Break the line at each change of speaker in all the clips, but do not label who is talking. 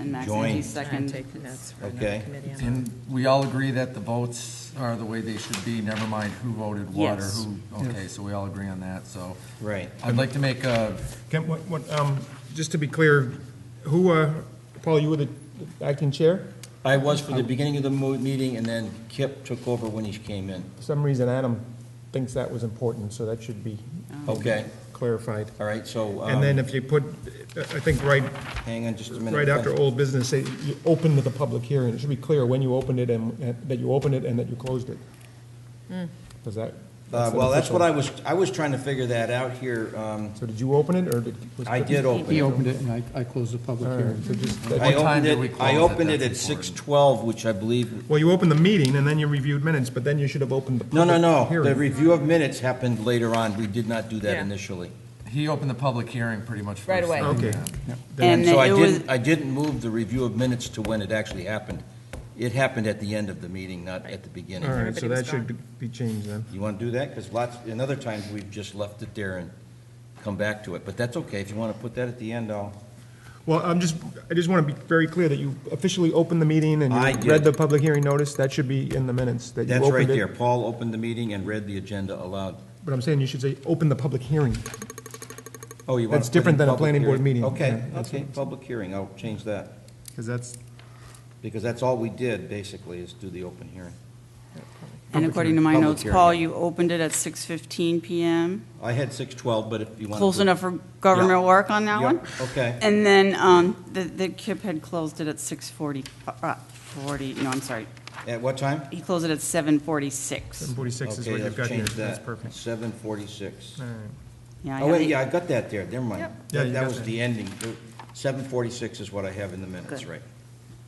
And Max
Join.
Angie
I'm
second.
taking that's for another
Okay.
committee. I'm
And we all agree that the votes are the way they should be, never mind who voted what or
Yes.
who, okay, so we all agree on that, so.
Right.
I'd like to make a,
Kent, what, what, um, just to be clear, who, uh, Paul, you were the acting chair?
I was for the beginning of the mo- meeting, and then Kip took over when he came in.
For some reason, Adam thinks that was important, so that should be
Okay,
clarified.
all right, so. um,
Oh. And then if you put, I think right,
Hang on just a minute.
right after old business, say you opened the public hearing. It should be clear when you opened it and, and that you opened it and that you closed it. Does that?
Uh,
an
Well, that's what I
official-
was, I was trying to figure that out here. um,
So did you open it, or did? was-
I did open
He
it.
opened it, and I, I closed the public
All right,
hearing.
so just,
I
What
that-
time
opened
did we
it,
close
I
it?
opened it at
That's important.
6:12, which I believe,
well, you opened the meeting and then you reviewed minutes, but then you should have opened the
no,
public
no,
hearing.
no. The review of minutes happened later on. We did not do that
Yeah.
initially.
he opened the public hearing pretty much first.
Right away.
I think,
Okay.
yeah.
And
So I
it was,
didn't, I didn't move the review of minutes to when it actually happened. It happened at the end of the meeting, not at the beginning.
All right,
Everybody
so
was
that should be changed then.
You want to do that? Because lots, and other times, we've just left it there and come back to it. But that's okay. If you want to put that at the end, I'll,
Well, I'm just, I just want to be very clear that you officially opened the meeting and
I
you
did.
read the public hearing notice. That should be in the minutes, that you
that's right
opened
there.
it.
Paul opened the meeting and read the agenda aloud.
But I'm saying you should say, open the public hearing.
Oh, you want
That's
to put in
different than a
public
planning board
hearing.
meeting.
Okay,
Yeah, that's
okay, public hearing. I'll change that.
Because that's,
Because that's all we did, basically, is do the open hearing.
and according to my
public
notes,
hearing.
Paul, you opened it at 6:15 PM.
I had 6:12, but if you want to.
Close enough for government
Yeah.
work on that
Yeah,
one?
okay.
And then, um, the, the Kip had closed it at 6:40, uh, 40, no, I'm sorry.
At what time?
He closed it at 7:46.
746 is what
Okay,
you've
I've
got here.
changed
That's
that.
perfect.
7:46.
All right.
Yeah, I
Oh,
have
wait,
it.
yeah, I got that there, never mind.
Yeah,
That
you
that
got
was
that.
the ending. 7:46 is what I have in the minutes,
Good.
right?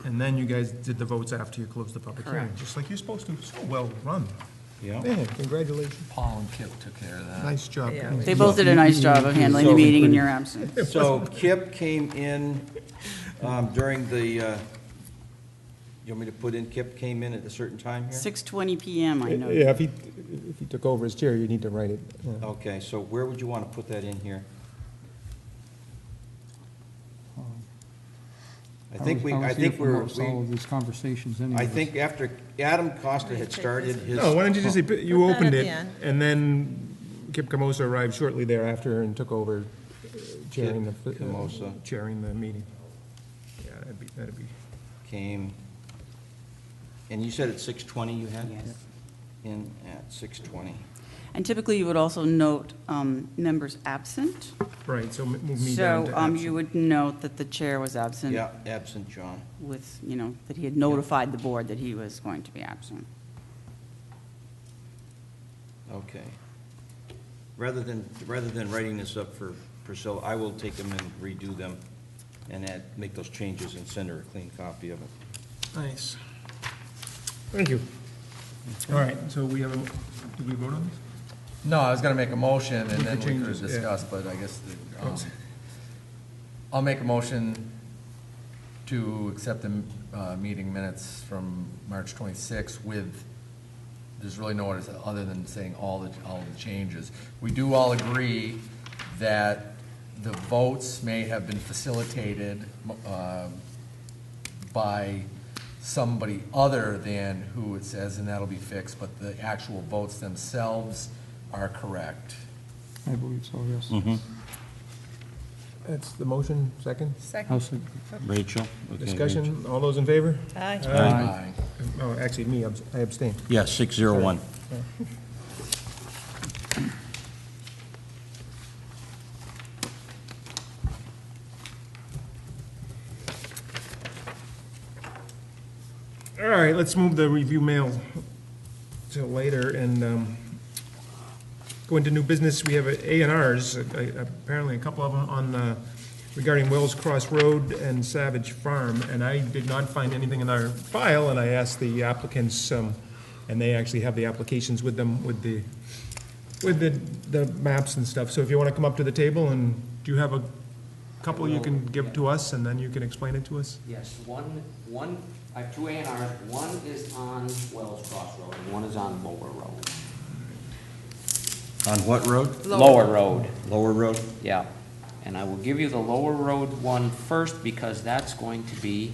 And then you guys did the votes after you closed the public hearing,
Correct.
just like you're supposed to. So well run.
Yeah.
Man, congratulations.
Paul and Kip took care
Uh,
of that.
Nice job.
Yeah.
guys.
They both did a nice job of handling the
So-
meeting in your absence.
So Kip came in um, during the, uh, you want me to put in, Kip came in at a certain time here?
6:20 PM, I know.
Yeah, if he, if he took over his chair, you need to write it. yeah.
Okay, so where would you want to put that in here? I think we,
was
I
here
think
for
we're,
most all
we-
of these conversations anyways.
I think after Adam Costa had started his.
No, Oh, why don't you just say, p- you
Put that
opened
at
it,
the end.
and then Kip Camosa arrived shortly thereafter and took over uh, chairing the, uh,
Kip Camosa.
chairing the meeting. Yeah, that'd be, that'd be,
came, and you said at 6:20 you had?
Yes.
In at 6:20.
And typically, you would also note um, members absent.
right, so m- move me down
So
to
um,
absent.
you would note that the chair was absent
Yeah, absent John.
with, you know, that he had notified the board that he was going to be absent.
Okay. Rather than, rather than writing this up for Priscilla, I will take them and redo them and add, make those changes and send her a clean copy of it.
Nice. Thank you. All right, so we have a, did we vote on this?
No, I was gonna make a motion and
With the
then we could
changes, yeah.
discuss, but I guess, the, um, I'll make a motion to accept the, uh, meeting minutes from March twenty-sixth with, there's really no other, other than saying all the, all the changes. We do all agree that the votes may have been facilitated, uh, by somebody other than who it says, and that'll be fixed, but the actual votes themselves are correct.
I believe so, yes.
That's the motion, second.
Second.
I'll second.
Rachel?
Discussion, all those in favor?
Aye.
Aye.
Oh, actually, me, abs- I abstain.
Yeah, 601.
All right, let's move the review mail till later and um, go into new business. We have A and Rs, uh, apparently a couple of them on uh, regarding Wells Cross Road and Savage Farm. And I did not find anything in our file, and I asked the applicants, um, and they actually have the applications with them, with the, with the, the maps and stuff. So if you want to come up to the table and do you have a couple you can give to us, and then you can explain it to us?
Yes, one, one, I have two A and Rs. One is on Wells Cross Road, and one is on Lower Road.
On what road?
Lower Road.
Lower Road?
Yeah, and I will give you the Lower Road one first, because that's going to be